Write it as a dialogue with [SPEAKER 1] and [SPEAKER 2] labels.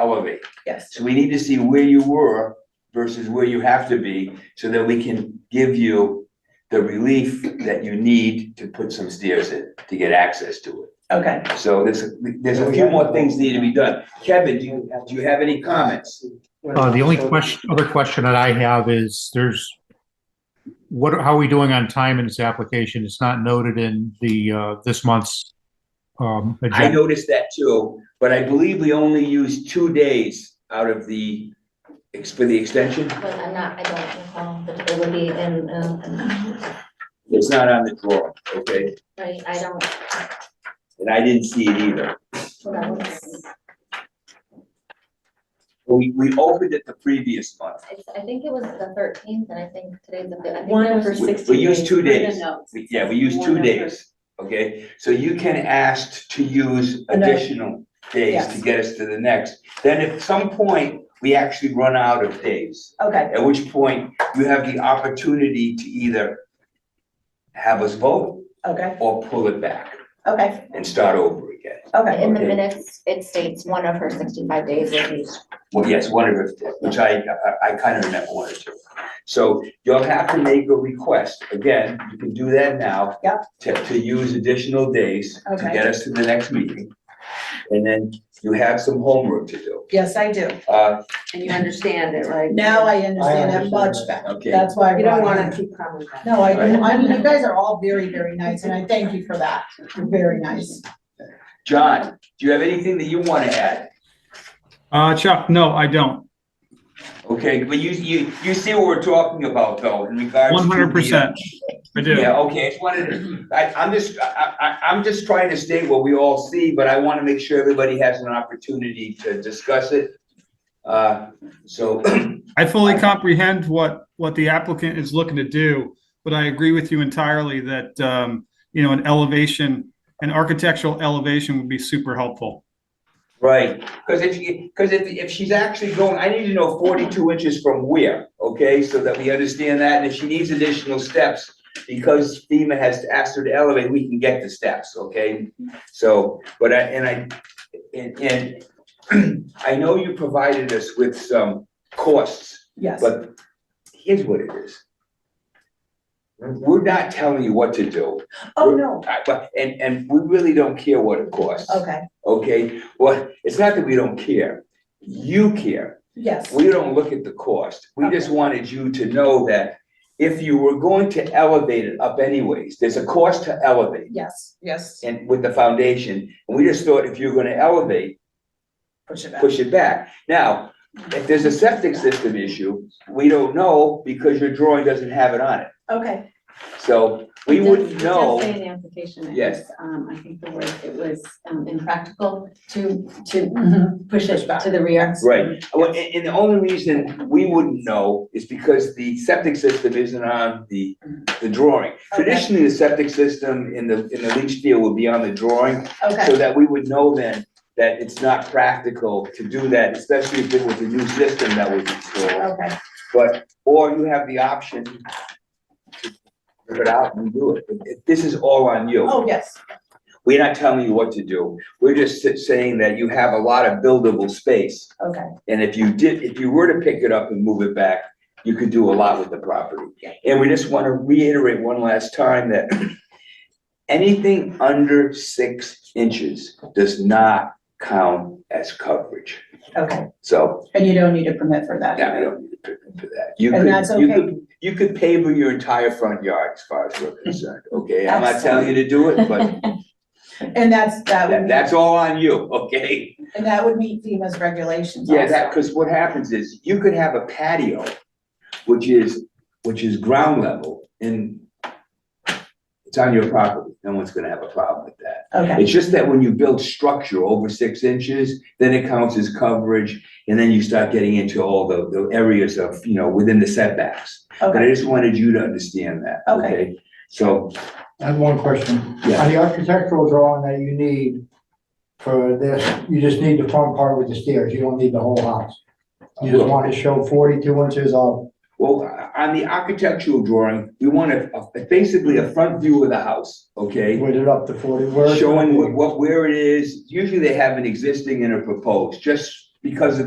[SPEAKER 1] elevate.
[SPEAKER 2] Yes,
[SPEAKER 1] So we need to see where you were versus where you have to be so that we can give you the relief that you need to put some stairs in to get access to it.
[SPEAKER 2] okay.
[SPEAKER 1] So there's, there's a few more things need to be done. Kevin, do you, do you have any comments?
[SPEAKER 3] Uh, the only question, other question that I have is there's, what, how are we doing on time in this application? It's not noted in the, uh, this month's, um,
[SPEAKER 1] I
[SPEAKER 3] agenda.
[SPEAKER 1] noticed that too, but I believe we only used two days out of the, ex- for the extension.
[SPEAKER 4] But I'm not, I don't recall, but it would be in, um, um,
[SPEAKER 1] It's not on the drawing, okay?
[SPEAKER 4] right, I don't,
[SPEAKER 1] And I didn't see it either.
[SPEAKER 4] well, it's-
[SPEAKER 1] We, we opened it the previous month.
[SPEAKER 4] it's- I think it was the thirteenth, and I think today's the, fif- I think
[SPEAKER 2] One
[SPEAKER 4] there was-
[SPEAKER 2] for
[SPEAKER 1] We-
[SPEAKER 2] sixty
[SPEAKER 1] We used two
[SPEAKER 5] Write a
[SPEAKER 1] days.
[SPEAKER 5] note.
[SPEAKER 1] We- Yeah, we used two
[SPEAKER 5] One number.
[SPEAKER 1] days, okay? So you can ask to use
[SPEAKER 2] Another-
[SPEAKER 1] additional days to
[SPEAKER 2] Yes.
[SPEAKER 1] get us to the next. Then at some point, we actually run out of days,
[SPEAKER 2] Okay,
[SPEAKER 1] at which point you have the opportunity to either have us vote
[SPEAKER 2] okay,
[SPEAKER 1] or pull it back
[SPEAKER 2] okay,
[SPEAKER 1] and start over again.
[SPEAKER 2] okay.
[SPEAKER 4] In the
[SPEAKER 1] Okay.
[SPEAKER 4] minutes, it states one of her sixty-five days is used.
[SPEAKER 1] Well, yes, one of it, which I, I- I kind of meant one or two. So you'll have to make a request. Again, you can do that now.
[SPEAKER 2] Yep.
[SPEAKER 1] To, to use additional days to
[SPEAKER 2] Okay.
[SPEAKER 1] get us to the next meeting. And then you have some homework to do.
[SPEAKER 2] Yes, I do.
[SPEAKER 1] Uh,
[SPEAKER 5] And you understand it, right?
[SPEAKER 2] Now I understand that
[SPEAKER 6] understand
[SPEAKER 2] much
[SPEAKER 6] that.
[SPEAKER 2] better.
[SPEAKER 1] Okay.
[SPEAKER 2] That's why. I
[SPEAKER 5] You don't
[SPEAKER 2] brought it
[SPEAKER 5] wanna
[SPEAKER 2] up.
[SPEAKER 5] keep coming back.
[SPEAKER 2] No, I, I mean, you guys are all very, very nice and I thank you for that. You're very nice.
[SPEAKER 1] John, do you have anything that you want to add?
[SPEAKER 7] Uh, Chuck, no, I don't.
[SPEAKER 1] Okay, but you, you, you see what we're talking about though in regards to. the, uh,
[SPEAKER 7] One hundred percent. I do.
[SPEAKER 1] Yeah, okay, it's one of the, I, I'm just, I, I, I'm just trying to state what we all see, but I wanna make sure everybody has an opportunity to discuss it. Uh, so,
[SPEAKER 7] I fully comprehend what, what the applicant is looking to do, but I agree with you entirely that, um, you know, an elevation, an architectural elevation would be super helpful.
[SPEAKER 1] right, cause if you, cause if, if she's actually going, I need to know forty-two inches from where, okay? So that we understand that, and if she needs additional steps, because FEMA has asked her to elevate, we can get the steps, okay? So, but I, and I, and, and I know you provided us with some costs
[SPEAKER 2] Yes,
[SPEAKER 1] But here's what it is. We're not telling you what to do,
[SPEAKER 2] oh, no,
[SPEAKER 1] I- but, and, and we really don't care what it costs,
[SPEAKER 2] okay,
[SPEAKER 1] okay? Well, it's not that we don't care, you care.
[SPEAKER 2] yes,
[SPEAKER 1] We don't look at the cost. We just wanted you to know that if you were going to elevate it up anyways, there's a cost to elevate
[SPEAKER 2] yes, yes,
[SPEAKER 1] and with the foundation. And we just thought if you're gonna elevate,
[SPEAKER 2] push it back.
[SPEAKER 1] push it back. Now, if there's a septic system issue, we don't know because your drawing doesn't have it on it.
[SPEAKER 2] Okay,
[SPEAKER 1] So we
[SPEAKER 5] It does-
[SPEAKER 1] wouldn't
[SPEAKER 5] It does say
[SPEAKER 1] know,
[SPEAKER 5] in the application, it
[SPEAKER 1] Yes.
[SPEAKER 5] was, um, I think the word, it was, um, impractical to, to
[SPEAKER 1] Mm-hmm.
[SPEAKER 2] Mhm.
[SPEAKER 5] push
[SPEAKER 2] Push
[SPEAKER 5] it
[SPEAKER 2] back.
[SPEAKER 5] to the rear.
[SPEAKER 1] right, Well, and, and the only reason we wouldn't know is because the septic system isn't on the, the drawing.
[SPEAKER 2] Okay.
[SPEAKER 1] Traditionally, the septic system in the, in the leach field would be on the drawing, so
[SPEAKER 2] okay,
[SPEAKER 1] that we would know then that it's not practical to do that, especially if it was a new system that was installed.
[SPEAKER 2] okay,
[SPEAKER 1] But, or you have the option to put it out and do it. It- it- This is all on you.
[SPEAKER 2] oh, yes,
[SPEAKER 1] We're not telling you what to do. We're just sa- saying that you have a lot of buildable space.
[SPEAKER 2] okay,
[SPEAKER 1] And if you did, if you were to pick it up and move it back, you could do a lot with the property. And we just want to reiterate one last time that anything under six inches does not count as coverage.
[SPEAKER 2] okay.
[SPEAKER 1] So,
[SPEAKER 2] And you don't need a permit for that.
[SPEAKER 1] yeah, I don't need to put into that. You
[SPEAKER 2] And
[SPEAKER 1] could-
[SPEAKER 2] that's
[SPEAKER 1] you could
[SPEAKER 2] okay,
[SPEAKER 1] you could paver your entire front yard as far as we're concerned, okay? I'm not telling you to do it, but
[SPEAKER 2] and that's, that would
[SPEAKER 1] that,
[SPEAKER 2] meet,
[SPEAKER 1] that's all on you, okay?
[SPEAKER 2] and that would meet FEMA's regulations
[SPEAKER 1] Yeah, that,
[SPEAKER 2] also.
[SPEAKER 1] because what happens is you could have a patio, which is, which is ground level and it's on your property. No one's gonna have a problem with that.
[SPEAKER 2] Okay,
[SPEAKER 1] It's just that when you build structure over six inches, then it counts as coverage. And then you start getting into all the, the areas of, you know, within the setbacks. But I
[SPEAKER 2] okay,
[SPEAKER 1] just wanted you to understand that,
[SPEAKER 2] Okay.
[SPEAKER 1] okay? So,
[SPEAKER 6] I have one question.
[SPEAKER 1] Yeah.
[SPEAKER 6] On the architectural drawing that you need for this, you just need the front part with the stairs, you don't need the whole house. You just want to show forty-two inches of,
[SPEAKER 1] Well, uh, on the architectural drawing, we want a, a- basically a front view of the house, okay?
[SPEAKER 6] with it up to forty, where?
[SPEAKER 1] Showing what, what, where it is, usually they have an existing and a proposed, just because of the